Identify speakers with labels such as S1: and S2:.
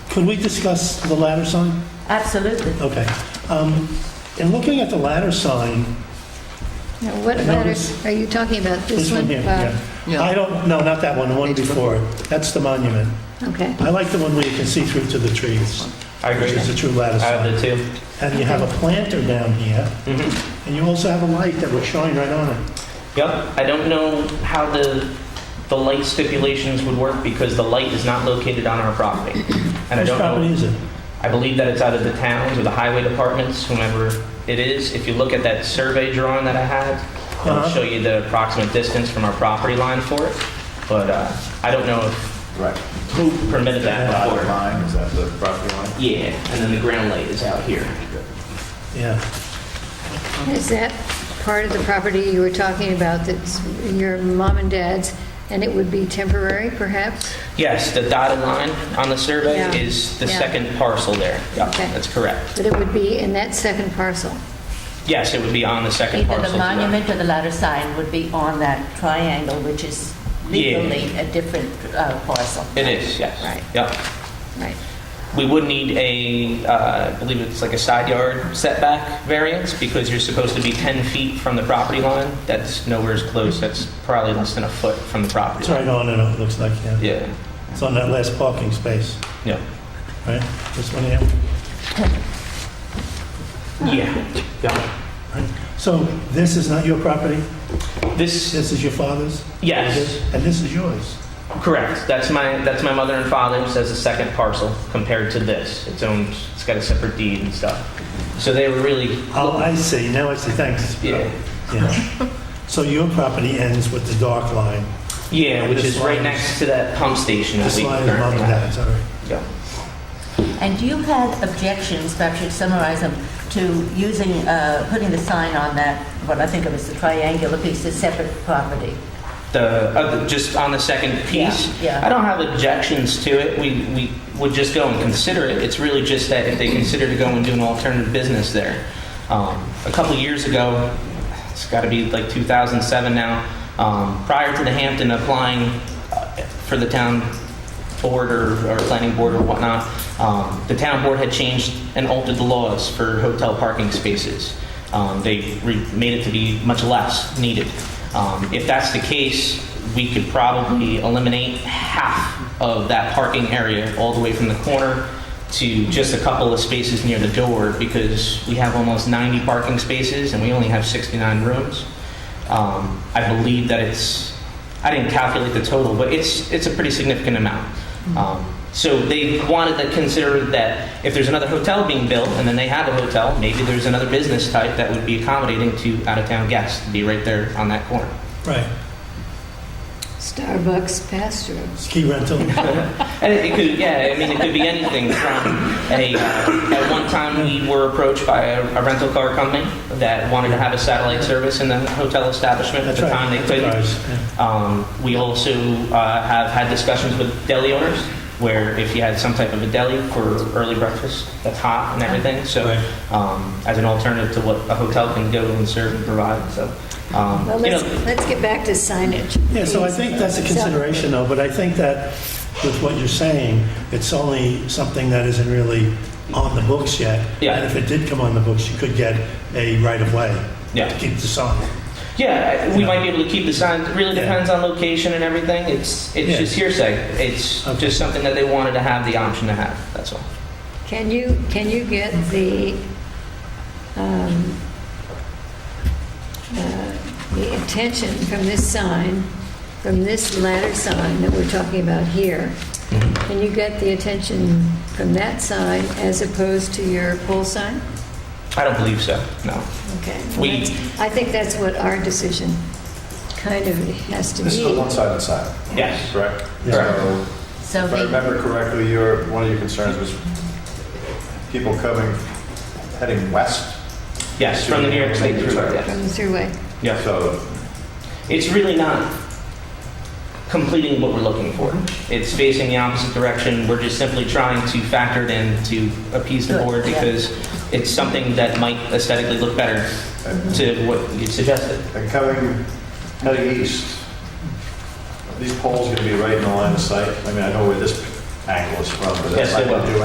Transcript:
S1: Could we discuss the ladder sign?
S2: Absolutely.
S1: Okay. Um, In looking at the ladder sign,
S3: Now, what
S1: No,
S3: letters are you talking about?
S1: this one uh, here,
S3: Bob?
S1: yeah. I don't, no, not that one, the one before. That's the monument.
S3: Okay.
S1: I like the one where you can see through to the trees,
S4: I
S1: which
S4: agree.
S1: is the true ladder
S4: I
S1: sign.
S4: have the two.
S1: And you have a planter down here,
S4: Mhm.
S1: and you also have a light that would shine right on it.
S4: Yep. I don't know how the the light stipulations would work because the light is not located on our property, and I
S1: Whose
S4: don't know.
S1: property is it?
S4: I believe that it's out of the towns or the highway departments, whomever it is. If you look at that survey drawing that I had, it'll
S1: Uh-huh.
S4: show you the approximate distance from our property line for it. But uh, I don't know if
S5: Right.
S4: who permitted that
S5: Dotted
S4: before.
S5: line, is that the property line?
S4: Yeah, and then the ground light is out here.
S1: Yeah.
S3: Is that part of the property you were talking about that's your mom and dad's, and it would be temporary perhaps?
S4: Yes, the dotted line on the survey
S3: Yeah.
S4: is the
S3: Yeah.
S4: second parcel there. Yeah,
S3: Okay.
S4: that's correct.
S3: But it would be in that second parcel?
S4: Yes, it would be on the second
S2: Either
S4: parcel.
S2: the
S4: to that.
S2: monument or the ladder sign would be on that triangle, which is
S4: Yeah.
S2: legally a different uh, parcel.
S4: It is, yes.
S2: Right.
S4: Yep.
S3: Right.
S4: We would need a, uh, I believe it's like a side yard setback variance because you're supposed to be 10 feet from the property line. That's nowhere as close. That's probably less than a foot from the property
S1: It's
S4: line.
S1: right on and on, it looks like, yeah.
S4: Yeah,
S1: It's on that last parking space,
S4: yeah.
S1: right? This one here.
S4: Yeah. Yeah.
S1: So this is not your property?
S4: This,
S1: This is your father's?
S4: yes,
S1: And this is yours?
S4: correct. That's my, that's my mother and father's as a second parcel compared to this. It's owned, it's got a separate deed and stuff. So they were really,
S1: Oh, I see, now I see, thanks.
S4: yeah.
S1: Yeah. So your property ends with the dark line.
S4: Yeah, which
S1: This
S4: is
S1: line
S4: right
S1: is-
S4: next to that pump station that
S1: This
S4: we
S1: line is mom and
S4: currently have.
S1: dad's, all right.
S4: Yeah.
S2: And you had objections, perhaps you'd summarize them, to using, uh, putting the sign on that, what I think of as the triangular piece, the separate property.
S4: the, uh, the- just on the second piece.
S2: Yeah, yeah.
S4: I don't have objections to it. We, we would just go and consider it. It's really just that if they consider to go and do an alternative business there. Um, a couple years ago, it's got to be like 2007 now. Um, prior to the Hampton applying uh, for the town board or, or planning board or whatnot, um, the town board had changed and altered the laws for hotel parking spaces. Um, they re- made it to be much less needed. Um, if that's the case, we could probably eliminate half of that parking area all the way from the corner to just a couple of spaces near the door because we have almost 90 parking spaces and we only have 69 rooms. Um, I believe that it's, I didn't calculate the total, but it's, it's a pretty significant amount.
S1: Mm-hmm.
S4: Um, so they wanted to consider that if there's another hotel being built, and then they have a hotel, maybe there's another business type that would be accommodating to out-of-town guests, be right there on that corner.
S1: Right,
S3: Starbucks pass-through.
S1: ski rental.
S4: And it, it could, yeah, I mean, it could be anything from a. Uh, at one time, we were approached by a, a rental car company that wanted to have a satellite service in the hotel establishment.
S1: That's
S4: At the
S1: right,
S4: time, they couldn't.
S1: enterprise, yeah.
S4: Um, we also uh, have had discussions with deli owners where if you had some type of a deli for early breakfast, that's hot and everything. So,
S1: Right.
S4: um, as an alternative to what a hotel can go and serve and provide. So, um,
S3: Well,
S4: you
S3: let's,
S4: know,
S3: let's get back to signage.
S1: Yeah, so I
S3: please.
S1: think that's a consideration, though, but I think that with what you're saying, it's only something that isn't really on the books yet.
S4: Yeah.
S1: And if it did come on the books, you could get a right-of-way.
S4: Yeah.
S1: To keep the sign.
S4: Yeah, I- we might be able to keep the signs, it really
S1: Yeah.
S4: depends on location and everything, it's,
S1: Yeah.
S4: it's just hearsay. It's
S1: Okay.
S4: just something that they wanted to have the option to have, that's all.
S3: Can you, can you get the, um, uh, the attention from this sign, from this ladder sign that we're talking about here?
S1: Mm-hmm.
S3: Can you get the attention from that sign as opposed to your pole sign?
S4: I don't believe so, no.
S3: Okay. well,
S4: We-
S3: that's- I think that's what our decision kind of has to
S5: This is the
S3: be.
S5: one-sided sign,
S4: Yes,
S5: correct?
S1: Yeah.
S5: So,
S2: So
S5: If I
S2: the,
S5: remember correctly, your, one of your concerns was people coming, heading west.
S4: yes, from the New York State
S5: Right.
S4: Thruway, yes.
S3: From the throughway.
S4: Yeah,
S5: So
S4: it's really not completing what we're looking for.
S2: Mm-hmm.
S4: It's facing the opposite direction, we're just simply trying to factor it in to appease the
S2: Good,
S4: board
S2: yeah.
S4: because it's something that might aesthetically look better
S2: Mm-hmm.
S4: to what you suggested.
S5: And coming, heading east, these poles going to be right in the line of sight? I mean, I know where this angle is from, but
S4: Yes,
S5: that's
S4: they
S5: not going
S4: will.
S5: to do